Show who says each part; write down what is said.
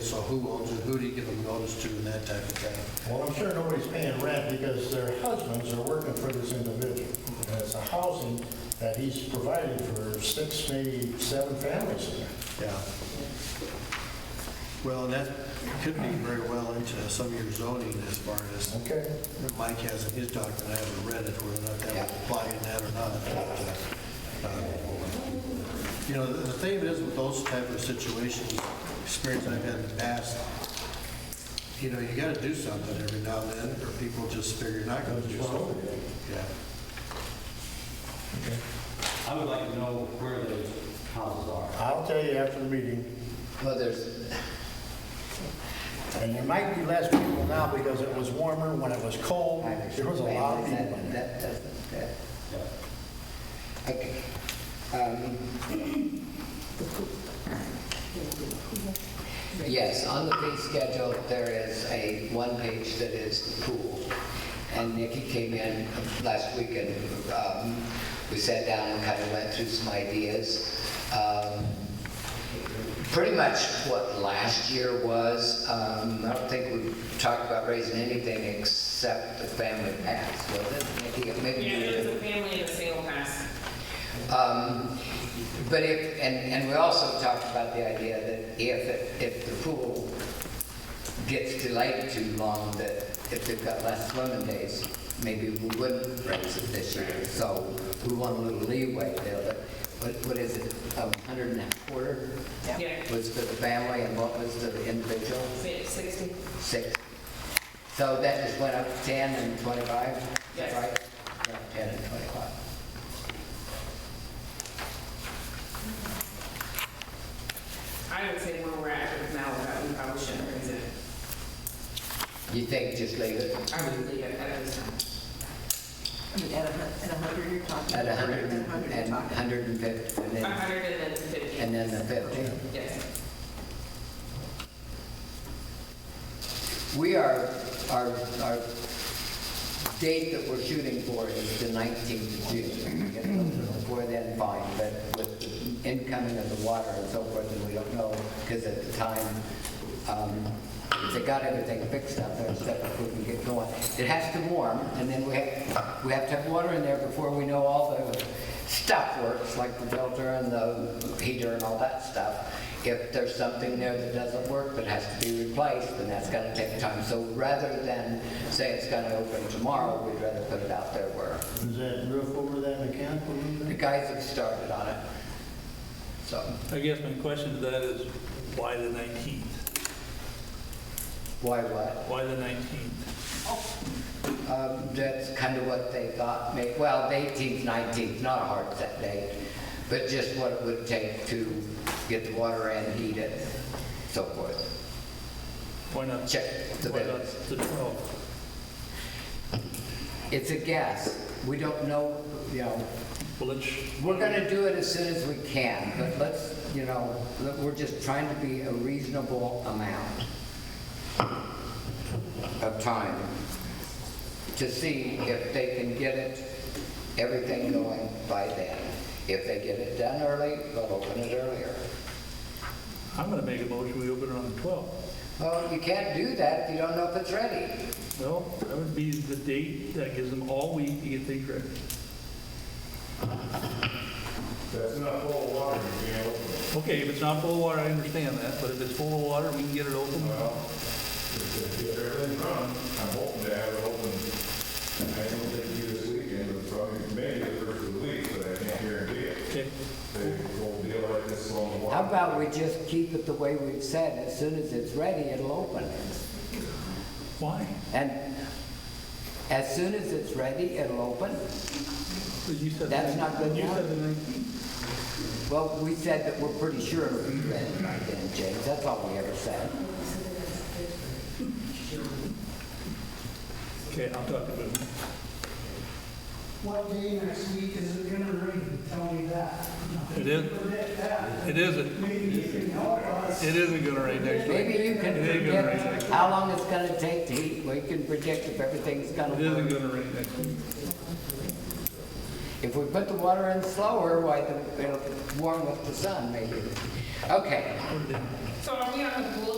Speaker 1: So who owns it, who do you give them notice to and that type of thing?
Speaker 2: Well, I'm sure nobody's paying rent because their husbands are working for this individual. And it's a housing that he's provided for six, maybe seven families in there.
Speaker 1: Yeah. Well, and that could be very well into some of your zoning as far as
Speaker 2: Okay?
Speaker 1: Mike has in his document, I haven't read it, whether or not that would apply in that or not. but, uh, uh, You know, the the thing is with those type of situations, experience I've had in the past, you know, you gotta do something every now and then, or people just figure you're not gonna do something. Yeah.
Speaker 3: I would like to know where those houses are.
Speaker 2: I'll tell you after the meeting,
Speaker 4: Well, there's,
Speaker 2: and there might be less people now because it was warmer, when it was cold,
Speaker 4: I
Speaker 2: there was a lot of people. in
Speaker 4: That,
Speaker 2: there.
Speaker 4: that doesn't,
Speaker 3: Yeah.
Speaker 4: that, okay. Um, Yes, on the fee schedule, there is a one page that is the pool. And Nikki came in last week and um, we sat down and kind of went through some ideas. Um, pretty much what last year was. Um, I don't think we talked about raising anything except the family pass, was it? Maybe- maybe we
Speaker 5: Yeah, it
Speaker 4: did.
Speaker 5: was a family and a single pass.
Speaker 4: Um, But if, and, and we also talked about the idea that if, it- if the pool gets delayed too long, that if they've got less swimming days, maybe we wouldn't raise it this year. So we want a little leeway there, but what, what is it, a hundred and a quarter?
Speaker 5: Yeah.
Speaker 4: Was for the family and what was the individual?
Speaker 5: Si- Sixty,
Speaker 4: Six. So that just went up to ten and twenty-five,
Speaker 5: Yes.
Speaker 4: right? Yeah, Ten and twenty-five.
Speaker 5: I would say where we're at with now, that we probably shouldn't raise it.
Speaker 4: You think just leave it?
Speaker 5: I would leave it at this time.
Speaker 6: I mean, at a, hun- at a hundred, you're talking.
Speaker 4: At a hundred
Speaker 6: At
Speaker 4: and,
Speaker 6: a hundred, you're
Speaker 4: and
Speaker 6: talking.
Speaker 4: hundred and fifty, and
Speaker 5: A
Speaker 4: then,
Speaker 5: hundred and then fifty.
Speaker 4: and then the fifty.
Speaker 5: Yes.
Speaker 4: We are, our, our date that we're shooting for is the nineteenth of June. If it goes Before then, fine, but with the incoming of the water and so forth, and we don't know, because at the time, um, if they got everything fixed out there, stuff if we can get going. It has to warm, and then we have, we have to have water in there before we know all the stuff works, like the filter and the heater and all that stuff. If there's something there that doesn't work that has to be replaced, then that's gonna take time. So rather than say it's gonna open tomorrow, we'd rather put it out there where
Speaker 2: Is that roof over that mechanical roof
Speaker 4: the
Speaker 2: there?
Speaker 4: guys have started on it. So
Speaker 7: I guess my question to that is, why the 19th?
Speaker 4: why what?
Speaker 7: Why the 19th?
Speaker 4: Um, That's kind of what they thought, may- well, the 18th, 19th, not a hard set date, but just what it would take to get the water in, heat it, so forth.
Speaker 7: Why not?
Speaker 4: Check the
Speaker 7: Why not
Speaker 4: bills.
Speaker 7: the 12th?
Speaker 4: It's a guess. We don't know, you know,
Speaker 7: Well, let's,
Speaker 4: we're going to do it as soon as we can, but let's, you know, let- we're just trying to be a reasonable amount of time to see if they can get it, everything going by then. If they get it done early, they'll open it earlier.
Speaker 7: I'm going to make a motion, we open it on the 12th.
Speaker 4: Well, you can't do that if you don't know if it's ready.
Speaker 7: Well, that would be the date that gives them all week to get things ready.
Speaker 2: That's not full of water, you know?
Speaker 7: Okay, if it's not full of water, I understand that, but if it's full of water, we can get it open.
Speaker 8: Well, if if everything runs, I'm hoping to have it open, I don't think due this weekend, but probably maybe the first of the week, but I can't guarantee it.
Speaker 7: Okay,
Speaker 8: They will deal like this long
Speaker 4: How
Speaker 8: while.
Speaker 4: about we just keep it the way we've said? As soon as it's ready, it'll open.
Speaker 7: why?
Speaker 4: And as soon as it's ready, it'll open.
Speaker 7: 'Cause you said.
Speaker 4: That's not good
Speaker 7: You
Speaker 4: enough?
Speaker 7: said the 19th.
Speaker 4: Well, we said that we're pretty sure it'll be ready by then, James. That's all we ever said.
Speaker 7: Okay, I'll talk to them.
Speaker 9: What day next week is it gonna rain? Tell me that.
Speaker 7: It is-
Speaker 9: Forget that.
Speaker 7: It isn't,
Speaker 9: Maybe you can help us.
Speaker 7: it isn't going to rain next week.
Speaker 4: Maybe you can
Speaker 7: It ain't gonna rain
Speaker 4: predict
Speaker 7: next
Speaker 4: how long it's gonna take to heat. We can predict if everything's gonna
Speaker 7: It isn't
Speaker 4: work.
Speaker 7: going to rain next week.
Speaker 4: If we put the water in slower, why, the- it'll warm with the sun, maybe. Okay,
Speaker 5: So are we on the pool